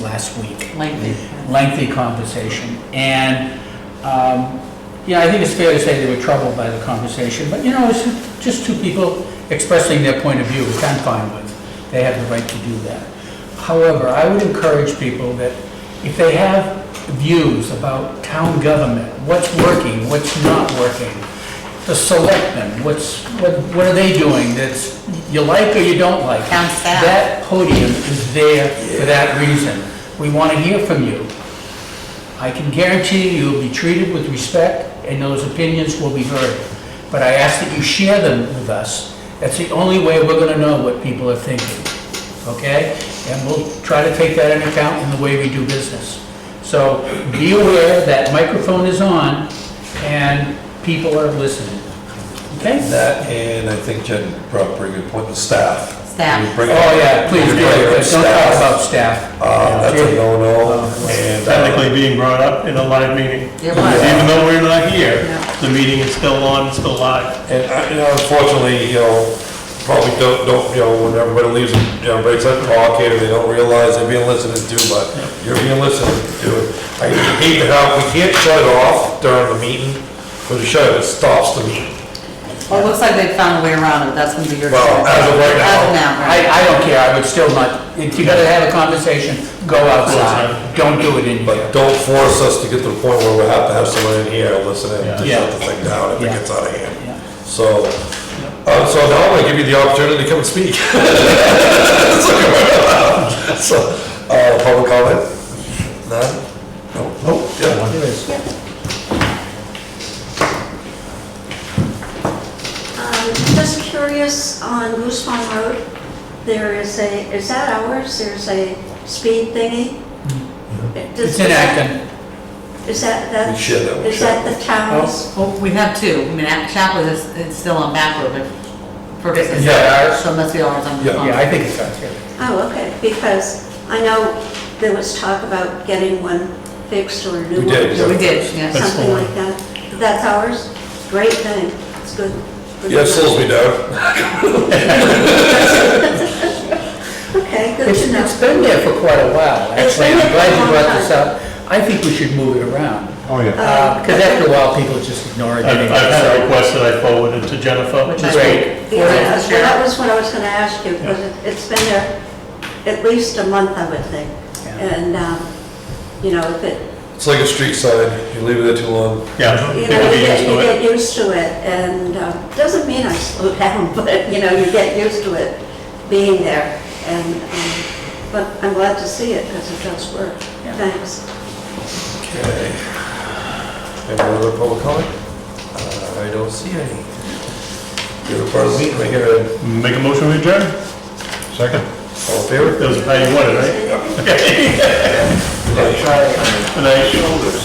last week. Lengthy. Lengthy conversation. And, um, yeah, I think it's fair to say they were troubled by the conversation, but, you know, it's just two people expressing their point of view, which I'm fine with. They have the right to do that. However, I would encourage people that if they have views about town government, what's working, what's not working, the selectmen, what's, what what are they doing that's, you like or you don't like? Town staff. That that podium is there for that reason. We want to hear from you. I can guarantee you will be treated with respect and those opinions will be heard. But I ask that you share them with us. That's the only way we're going to know what people are thinking, okay? And we'll try to take that into account in the way we do business. So be aware that microphone is on and people are listening, okay? That, and I think Jen brought up a pretty good point, the staff. Staff. You bring up- Oh, yeah, please, you do bring up it. don't talk staff. about staff. Uh, that's a no-no, and. uh, technically being brought up in a live meeting. It was. Even though we're not here, Yeah. the meeting is still on, it's still live. And, I- you know, unfortunately, you know, probably don't, don't, you know, when everybody leaves, you know, breaks up talk here, they don't realize they're being listened to, but you're being listened to. I hate to have, we can't shut it off during the meeting, because you shut it, it stops the meeting. Well, it looks like they found a way around it, that's gonna be your choice. Well, as of right now. As of now, I, right. I don't care, I would still not, if you gotta have a conversation, go outside, Outside. don't do it in But here. don't force us to get to the point where we have to have someone in here listening to Yeah. shut the thing down if it Yeah. gets out of hand. Yeah. So, uh, so now I'm gonna give you the opportunity to come and speak. So, uh, public comment? None? No, Oh, no, yeah. There is. Um, Just curious, on Goose Farm Road, there is a, is that ours? There's a speed thingy? Does- It's in Acton. Is that, that's, Mm-hmm. We share that with is that the Oh. town's? Well, Oh, we have two, I mean, Chaplin is, it's still on back road, but purposes. Yeah, ours- So it must be ours on. Yeah, on- Yeah, I think it's out here. Oh, okay, because I know there was talk about getting one fixed or a new We one. did, Yeah, We did, or yeah. That's Something cool. like that. That's ours? Great thing, it's good. Yeah, it slows me down. Okay, good It's, to know. it's been there for quite a while, It's actually, been I'm there glad for a you long brought this time. up. I think we should move it around, Oh, yeah. Uh 'cause because after a while, people just ignore it. I've I've had a request that I forwarded to Jennifer. Which this is week. great. Or Yeah, it's well, the that sheriff. was what I was gonna ask you, because it- it's been there at least a month, I would think. Yeah. And, um, you know, if it, It's like a street sign, you leave it there too long. Yeah, you people know, you be get, used you to get it. used to it, and, um, doesn't mean I slow down, but, you know, you get used to it being there. And, um, but I'm glad to see it, because it does work. Yeah. Thanks. Okay. Any other public comment? Uh, I don't see any. You're a part of the meeting, I hear it. Make a motion to adjourn? Second? All in favor? That was how you wanted, right? Anything? Okay. Aye. Good night.